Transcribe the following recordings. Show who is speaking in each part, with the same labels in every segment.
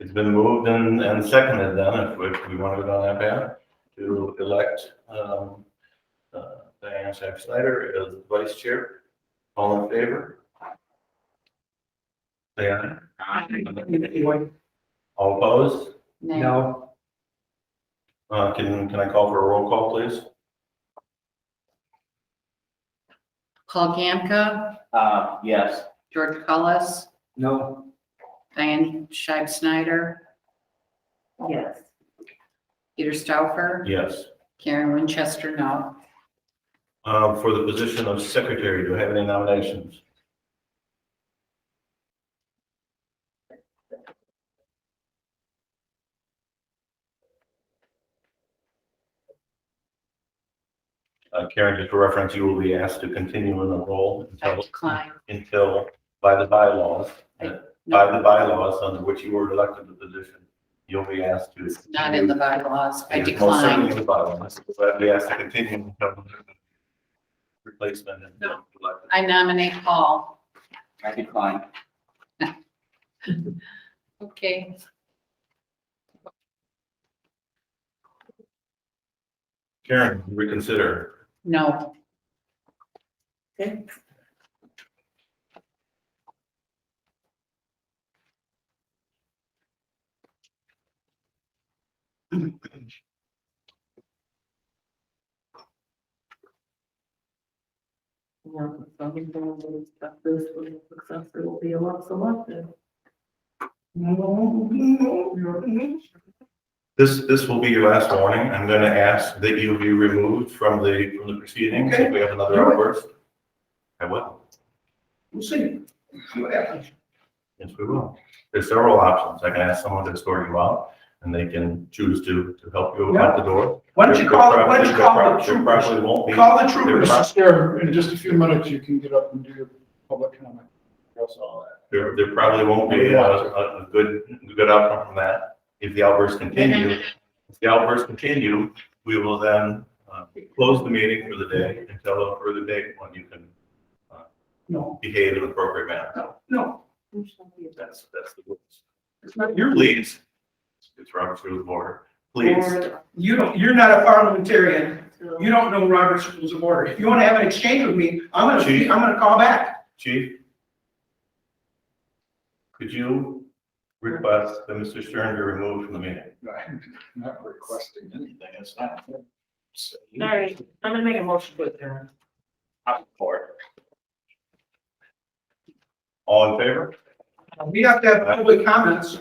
Speaker 1: It's been moved and, and seconded then, if we, if we want to go down that path, to elect, um, uh, Diane Sack Snyder as vice chair. All in favor? Say aye. All opposed?
Speaker 2: No.
Speaker 1: Uh, can, can I call for a roll call, please?
Speaker 3: Paul Gamka,
Speaker 2: Uh, yes.
Speaker 3: George Cullis,
Speaker 2: No.
Speaker 3: Diane Scheib Snyder,
Speaker 4: Yes.
Speaker 3: Peter Stauffer,
Speaker 1: Yes.
Speaker 3: Karen Winchester, no.
Speaker 1: Uh, for the position of secretary, do I have any nominations? Uh, Karen, just for reference, you will be asked to continue in the role
Speaker 3: I
Speaker 1: until,
Speaker 3: decline.
Speaker 1: until by the bylaws,
Speaker 3: I-
Speaker 1: by
Speaker 3: No,
Speaker 1: the bylaws under which you were elected to the position, you'll be asked to.
Speaker 3: it's not in the bylaws. I
Speaker 1: It is most certainly
Speaker 3: decline.
Speaker 1: in the bylaws, but uh, we ask to continue until the replacement is
Speaker 3: No.
Speaker 1: elected.
Speaker 3: I nominate Paul.
Speaker 2: I decline.
Speaker 3: Okay.
Speaker 1: Karen, reconsider.
Speaker 3: No.
Speaker 4: Okay. Yeah, so we don't really expect this when the successor will be selected.
Speaker 1: This, this will be your last warning. I'm going to ask that you be removed from the, from the proceedings if we have another outburst. I will.
Speaker 5: We'll see. See what happens.
Speaker 1: Yes, we will. There's several options. I can ask someone to escort you out and they can choose to, to help you out the door.
Speaker 5: Why don't you call, why don't you call the
Speaker 1: There
Speaker 5: troopers?
Speaker 1: Probably won't be.
Speaker 5: Call the troopers.
Speaker 1: They're-
Speaker 6: Chair, in just a few minutes, you can get up and do your public comment.
Speaker 1: There, there probably won't be a, a, a good, good outcome from that. If the outbursts continue, if the outbursts continue, we will then, uh, close the meeting for the day until a further date when you can
Speaker 5: No,
Speaker 1: behave in an appropriate manner.
Speaker 5: no, no,
Speaker 1: That's, that's the rules.
Speaker 5: it's not your,
Speaker 1: Your please, it's Robert's rules of order. Please,
Speaker 5: you don't, you're not a parliamentarian. You don't know Robert's rules of order. If you want to have an exchange with me, I'm gonna,
Speaker 1: Chief.
Speaker 5: I'm gonna call back.
Speaker 1: chief. Could you request that Mr. Stern be removed from the meeting?
Speaker 6: I'm Not requesting anything, it's not.
Speaker 4: All right, I'm gonna make a motion to adjourn.
Speaker 1: All in favor?
Speaker 5: We have to have public comments.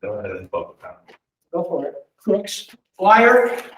Speaker 1: Go ahead and vote.
Speaker 5: Go for it. Crooks, flyer,